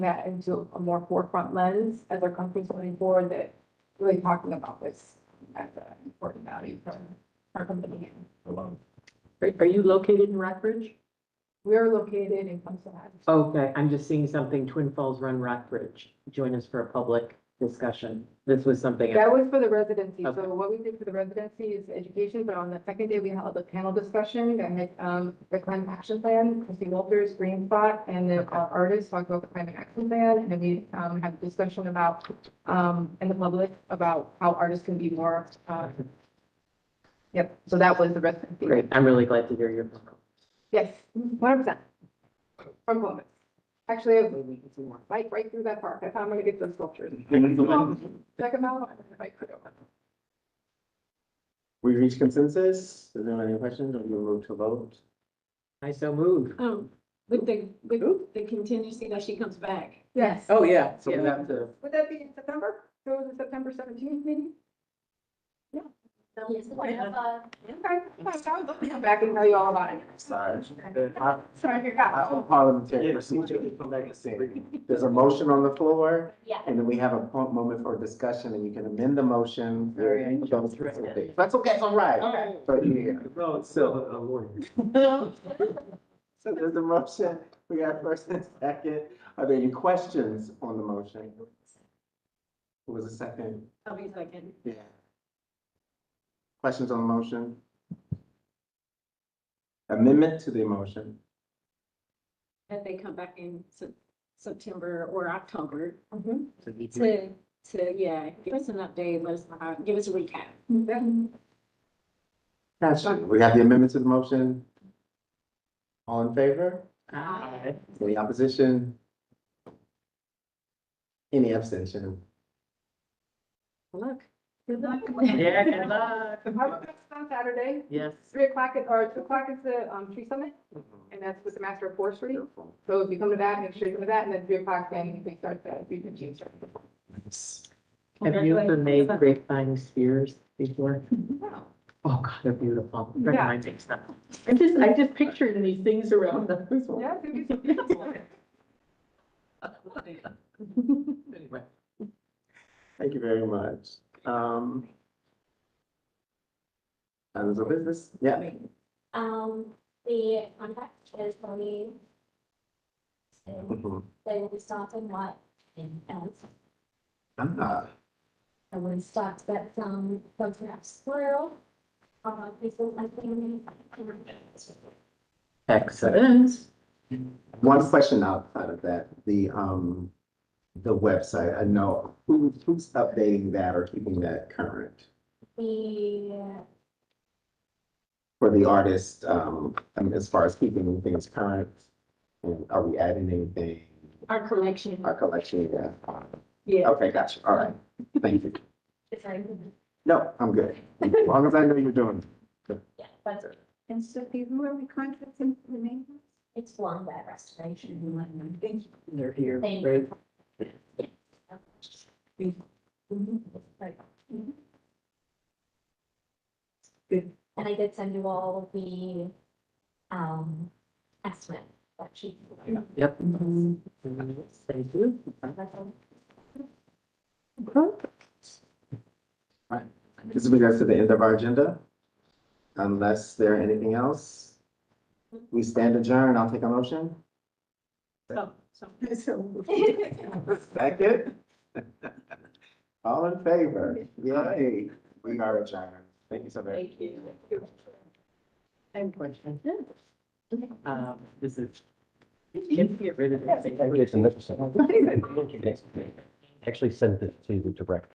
that into a more forefront lens as our company's going forward that really talking about this as an important value for our company. alone. Are, are you located in Rockbridge? We are located in Clemson Heights. Okay, I'm just seeing something, Twin Falls Run Rockbridge. Join us for a public discussion. This was something. That was for the residency. So Okay. what we did for the residency is education, but on the second day, we held a panel discussion that had, um, the climate action plan, Christie Walters, Green Spot, and the uh, artists talked about the climate action plan. And then we, um, had a discussion about, um, and the public about how artists can be more, uh, yep, so that was the residency. Great, I'm really glad to hear your. Yes, one hundred percent. From Columbus. Actually, I bike right through that park. I found where to get those sculptures. Oh, Check them out. Bike right over. We reached consensus. Is there any questions? Are we move to vote? I so move. Um, with the, with the contingency that she comes back. Yes. Oh, yeah. So we have to, Would that be in September? So the September seventeenth meeting? Yes. Okay, I'll I'll come back and tell you all about it. sorry. I- Sorry, you're I- out. Parliamentary procedure. There's a motion on the floor Yeah. and then we have a po- moment for discussion and you can amend the motion. Very anxious. That's okay, it's all right. Okay. But yeah, No, it's still a lawyer. so there's a motion. We got first and second. Are there any questions on the motion? Who was the second? I'll be second. Yeah. Questions on the motion? Amendment to the motion? That they come back in Sep- September or October Mhm. to, to, yeah, give us an update, let us know, how- give us a recap. Gotcha. We have the amendment to the motion. All in favor? Aye. Any opposition? Any abstention? Look. Yeah, good luck. The public is on Saturday, Yes. three o'clock, is- or two o'clock is the, um, tree summit, and that's with the master of forestry. So if you come to that, make sure you come to that, and then three o'clock, then we start the, we can change. Have you ever made grapevine spears before? Oh, God, they're beautiful. Friend of Yeah. mine makes them. I just, I just pictured these things around those. Yeah, it'll be some- Anyway. Thank you very much. Um. Items of business, yeah. Um, the contact is Tony. So they will be stopping what? else? Ah, I would stop that some photographs um, squirrel. Uh, people like them. Excellent. One question outside of that, the, um, the website, I know, who, who's updating that or keeping that current? The, For the artist, um, I mean, as far as keeping things current, and are we adding anything, Our collection, our collection, yeah? yeah. Okay, gotcha, all right, thank you. it's like, No, I'm good, as long as I know you're doing. yeah, but And so who are we contacting for the name? it's long that restoration. They're here, Thank right? Right. And I did send you all the, um, estimate that she. Yep. Thank you. That's all. This brings us to the end of our agenda. Unless there anything else, we stand adjourned. I'll take a motion. So, so. Second. All in favor? Yay. We are adjourned. Thank you so very much. Thank you. I have a question. Um, this is, can you get rid of that? It's an interesting. Actually sent it to the director.